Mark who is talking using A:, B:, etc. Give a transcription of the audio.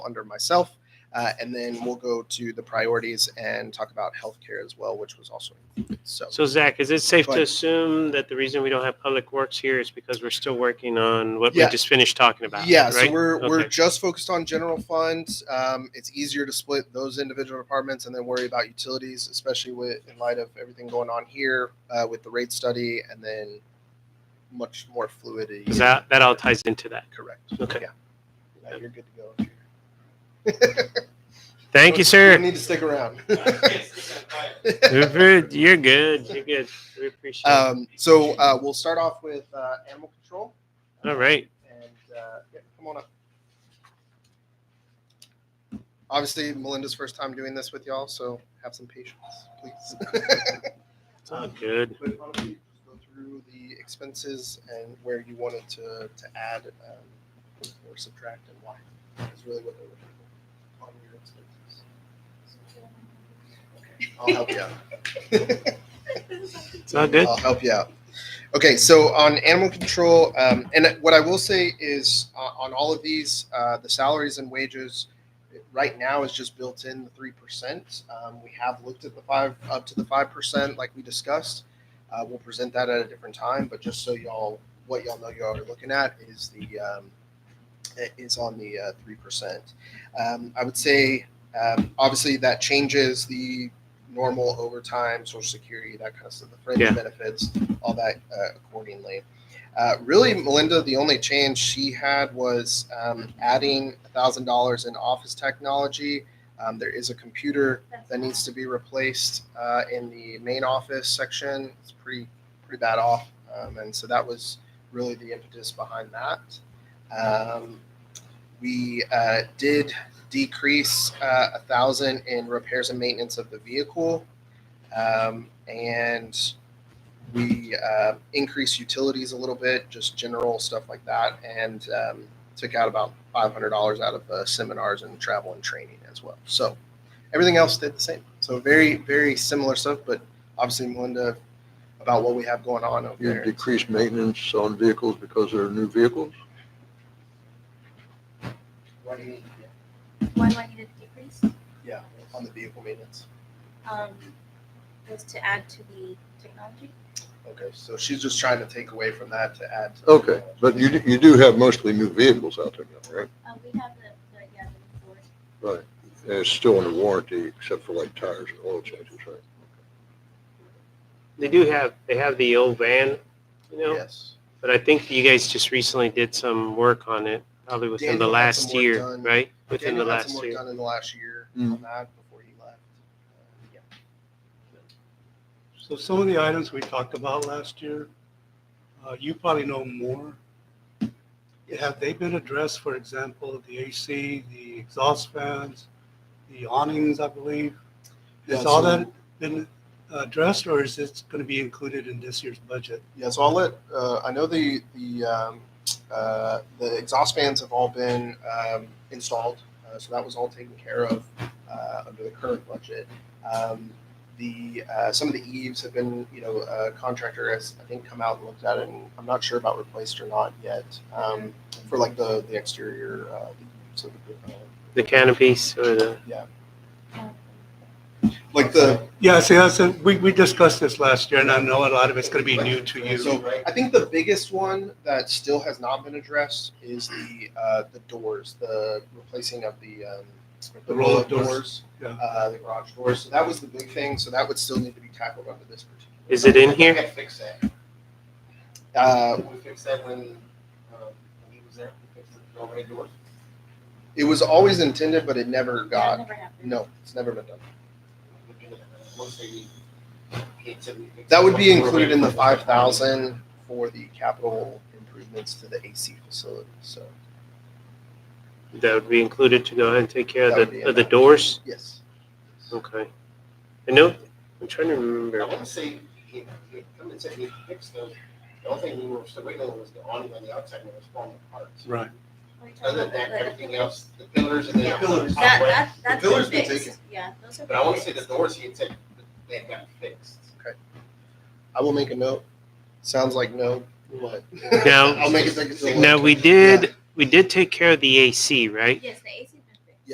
A: under myself. Uh, and then we'll go to the priorities and talk about healthcare as well, which was also included. So,
B: So Zach, is it safe
A: Go
B: to
A: ahead.
B: assume that the reason we don't have Public Works here is because we're still working on what we
A: Yeah.
B: just finished talking about?
A: yeah,
B: right?
A: so we're we're
B: Okay.
A: just focused on general funds. Um, it's easier to split those individual departments and then worry about utilities, especially with in light of everything going on here uh, with the rate study and then much more fluidity.
B: 'Cause that, that all ties into that.
A: Correct.
B: Okay.
A: Yeah. No, you're good to go. Oh,
B: Thank you,
A: You
B: sir.
A: need to stick around.
B: You're very- you're good. You're good. We appreciate it.
A: um, so uh, we'll start off with uh, animal control.
B: All right.
A: And uh, yeah, come on up. Obviously, Melinda's first time doing this with y'all, so have some patience, please.
B: It's all good.
A: but why don't you just go through the expenses and where you wanted to, to add um, or subtract and why. Is really what they're looking for on your expenses. Okay, I'll help you out.
B: It's all good.
A: I'll help you out. Okay, so on animal control, um, and what I will say is uh, on all of these, uh, the salaries and wages right now is just built in the three percent. Um, we have looked at the five up to the five percent, like we discussed. Uh, we'll present that at a different time, but just so y'all, what y'all know, y'all are looking at is the um, is on the uh, three percent. Um, I would say, um, obviously, that changes the normal overtime, social security, that kind of stuff, the fringe
B: Yeah.
A: benefits, all that uh, accordingly. Uh, really, Melinda, the only change she had was um, adding thousand dollars in office technology. Um, there is a computer that needs to be replaced uh, in the main office section. It's pretty pretty bad off, um, and so that was really the impetus behind that. Um, we uh, did decrease uh, a thousand in repairs and maintenance of the vehicle, um, and we uh, increased utilities a little bit, just general stuff like that, and um, took out about five hundred dollars out of uh, seminars and travel and training as well. So everything else stayed the same. So very very similar stuff, but obviously Melinda about what we have going on over
C: You
A: there.
C: decrease maintenance on vehicles because they're new vehicles?
A: What do you need?
D: Why do I need a decrease?
A: Yeah, on the vehicle maintenance.
D: Um, was to add to the technology?
A: Okay, so she's just trying to take away from that to add. To
C: Okay, but you, do- you do have mostly new vehicles out there now, right?
D: Uh, we have the, the, yeah, the Ford.
C: Right. And it's still under warranty except for like tires and oil changes, right?
B: They do have, they have the old van, you know,
A: Yes.
B: but I think you guys just recently did some work on it, probably within the
A: Daniel had some
B: last
A: work
B: year,
A: done.
B: right? Within the
A: Daniel had some
B: last
A: work
B: year.
A: Done in the last year
C: Mm.
A: on that before he left. Uh,
E: So some of the items we talked about last year, uh, you probably know more. Have they been addressed, for example, the AC, the exhaust fans, the awnings, I believe? Has
A: Yeah,
E: all
A: so-
E: that been addressed or is it going to be included in this year's budget?
A: Yeah, so I'll let, uh, I know the, the, um, uh, the exhaust fans have all been, um, installed. Uh, so that was all taken care of, uh, under the current budget. Um, the, uh, some of the eaves have been, you know, uh, contractor has, I think, come out and looked at it and I'm not sure about replaced or not yet. Um, for like the, the exterior, uh, so the, uh,
B: The canopies or the,
D: Um,
A: like the,
E: Yeah, see, that's, a- we, we discussed this last year and I know a lot of it's going to be new to you.
A: So I think the biggest one that still has not been addressed is the uh, the doors, the replacing of the um,
E: The roll-up doors. Yeah.
A: uh, the garage doors. So that was the big thing. So that would still need to be tackled under this particular.
B: is it in here?
A: We fix that. Uh, we fixed that when,
F: um,
A: uh, when he was there. We fixed the doorway doors. It was always intended, but it never
D: That
A: got.
D: never happened.
A: No, it's never been done.
F: uh,
A: That
F: That
A: would be included in the five thousand for the capital improvements to the AC facility. So
B: That would be included to go ahead and take care
A: That
B: of
A: would be
B: the,
A: in
B: of the
A: that.
B: doors?
A: yes.
B: Okay. I know, I'm trying to remember.
F: I want to say, he, he, come and said he fixed those, the only thing we were still waiting on was the awning on the outside when it was falling apart.
E: Right.
D: Are you talking
F: Other than
D: about
F: that,
D: the-
F: everything else, the pillars and
D: Yeah.
F: then.
A: Pillars.
D: That, that, that's
A: pillar's
D: been
A: been
D: fixed. Yeah, those are.
F: But I want to say the
D: fixed.
F: doors, he had said that they had gotten fixed.
A: I will make a note. Sounds like no, but
B: No.
A: I'll make it.
B: Now, we did, we did take care of the AC, right?
D: Yes, the AC